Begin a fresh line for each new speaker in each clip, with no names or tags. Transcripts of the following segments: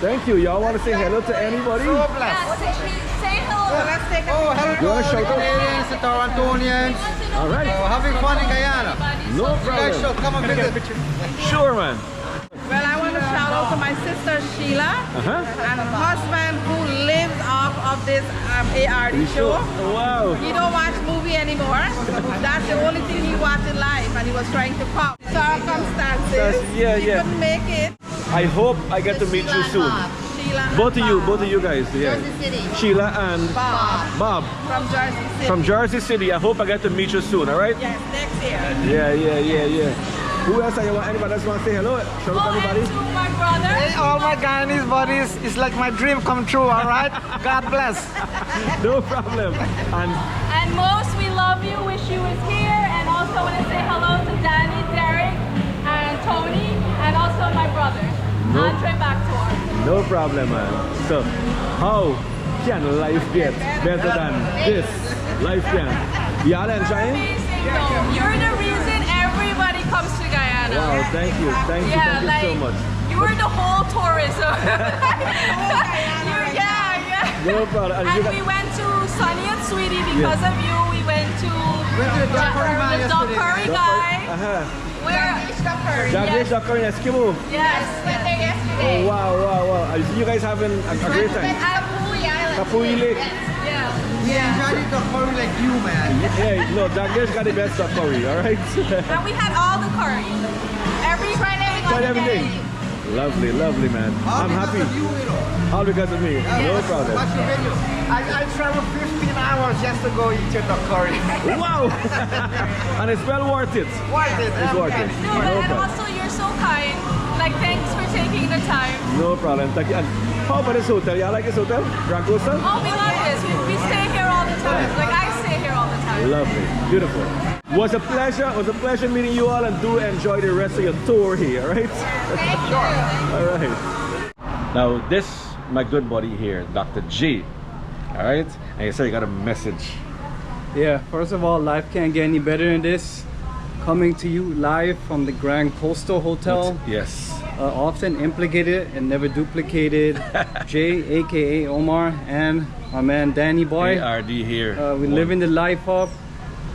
Thank you. Y'all want to say hello to anybody?
So
You
blessed.
Yeah, say, please say hello.
Let's take oh, hello
wanna
to
shout
all
out?
Canadians and Torontonians.
All right.
We're having fun in Guyana.
No
You guys should
problem.
come and visit.
Sure, man.
Well, I want to shout out to my sister Sheila
Uh-huh.
and her husband who lives off of this um, ARD show.
Wow.
He don't watch movie anymore. That's the only thing he watched in life, and he was trying to pop. Circumstances.
That's- yeah,
he
yeah.
couldn't make it.
I hope I get to meet you soon.
Sheila. and
Both of you,
Bob
both of you guys. Yeah. Sheila and
Bob
Bob
from Jersey City.
from Jersey City. I hope I get to meet you soon. All right.
yes, next year.
Yeah, yeah, yeah, yeah. Who else? I want anybody else want to say hello? Shout
Oh,
out to
and
anybody.
to my brother.
Hey, all my Guyanese buddies, it's like my dream come true, all right? God bless.
No problem. And
And most, we love you, wish you was here. And also want to say hello to Danny, Derek, and Tony, and also my brother,
Nope.
Andre Backtor.
no problem, man. So, how can life get better than this? Life can. Y'all enjoying?
Amazing, though. You're the reason everybody comes to Guyana.
Wow, thank you, thank you, thank
yeah,
you
like,
so much.
You are the whole tourism. You're- yeah, yeah.
No problem. And you
And
got-
we went to Sunny and Sweetie because of you. We went to
Went to the Doc Curry
Ja-
man
the Doc
yesterday.
Curry
Doc
guy.
Curry- Uh-huh.
Where?
Japanese
Yes.
doctor in Eskimo.
Yes. Oh, Went there yesterday.
Wow, wow, wow. Are You guys having a, a great time.
At Pui Island.
Kapui Lake.
Yeah.
We enjoy it for like you, man.
Yeah, no, Japanese got the best of curry, all right?
And we had all the curry. Every Friday we got
Tried
to get
everything.
it.
Lovely, lovely, man.
All
I'm
because
happy.
of you, you know.
All because of me. No problem.
Watch the video. I, I traveled 15 hours just to go eat your dog curry.
Wow! and it's well worth it.
Worth it.
It's worth it.
No, but and also you're so kind. Like thanks for taking the time.
No problem. Thank you. And how about this hotel? Y'all like this hotel? Dracosa?
Oh, we love this. We, we stay here all the time. Like I stay here all the time.
Lovely. Beautiful. Was a pleasure. Was a pleasure meeting you all and do enjoy the rest of your tour here, all right?
Thank you.
All right. Now this, my good buddy here, Dr. G. All right? And you said you got a message.
Yeah, first of all, life can't get any better than this. Coming to you live from the Grand Coastal Hotel,
Yes.
uh, often implicated and never duplicated. Jay, aka Omar, and my man Danny Boy.
ARD here.
Uh, we're
One-
living the life up.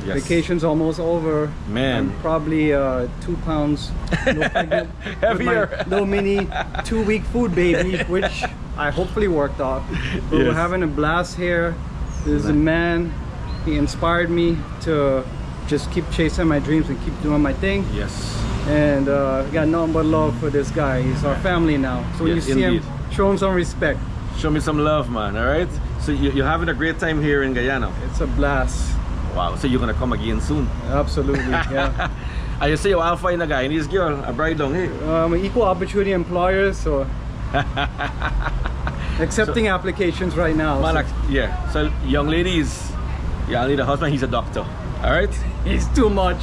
Yes.
Vacation's almost over.
Man.
I'm probably uh, two pounds no pregnant with my
Heavier.
little mini two week food baby, which I hopefully worked off. But
Yes.
We're having a blast here. There's a man, he inspired me to just keep chasing my dreams and keep doing my thing.
Yes.
And uh, got nothing but love for this guy. He's our family now. So when
Yes,
you see
indeed.
him, show him some respect.
Show me some love, man. All right. So you, you're having a great time here in Guyana.
It's a blast.
Wow. So you're gonna come again soon.
Absolutely. Yeah.
And you say you will find a guy and his girl, a bride down here.
um, equal opportunity employer, so accepting applications right now.
Man,
so-
like- yeah. So young ladies, y'all need a husband. He's a doctor. All right.
it's too much.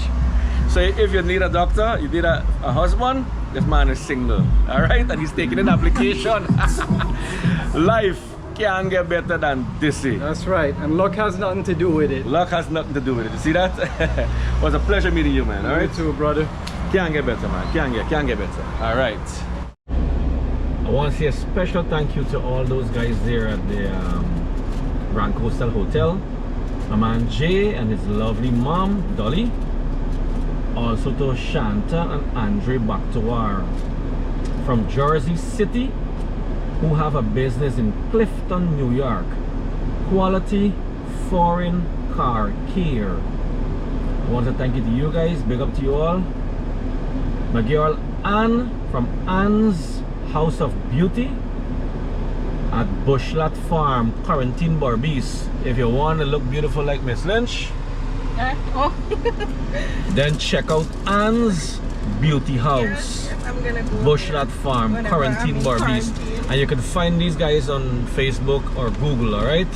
So if you need a doctor, you need a, a husband. This man is single. All right, and he's taking an application. Life can't get better than this. eh?
That's right, and luck has nothing to do with it.
Luck has nothing to do with it. You see that? was a pleasure meeting you, man. All right.
You too, brother.
Can't get better, man. Can't get, can't get better. All right. I want to say a special thank you to all those guys there at the um, Grand Coastal Hotel. My man Jay and his lovely mom, Dolly. Also to Shanta and Andre Bakhtiar from Jersey City, who have a business in Clifton, New York. Quality foreign car care. I want to thank you to you guys. Big up to you all. My girl Anne from Anne's House of Beauty at Bushlat Farm, Quarantine Barbies. If you want to look beautiful like Miss Lynch, then check out Anne's Beauty House,
I'm gonna go.
Bushlat Farm,
Whenever
Quarantine
I'm in
Barbies.
quarantine.
And you can find these guys on Facebook or Google, alright?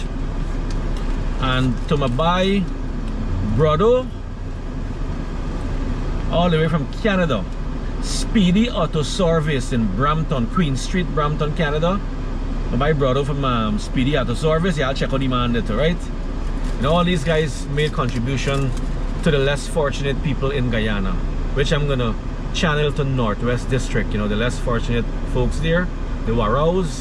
And to my bye, Brodo, all the way from Canada. Speedy Auto Service in Brampton, Queen Street, Brampton, Canada. My brother from um, Speedy Auto Service, yeah, I'll check out the man that, right? And all these guys made contribution to the less fortunate people in Guyana, which I'm gonna channel to Northwest District, you know, the less fortunate folks there. the Warrows,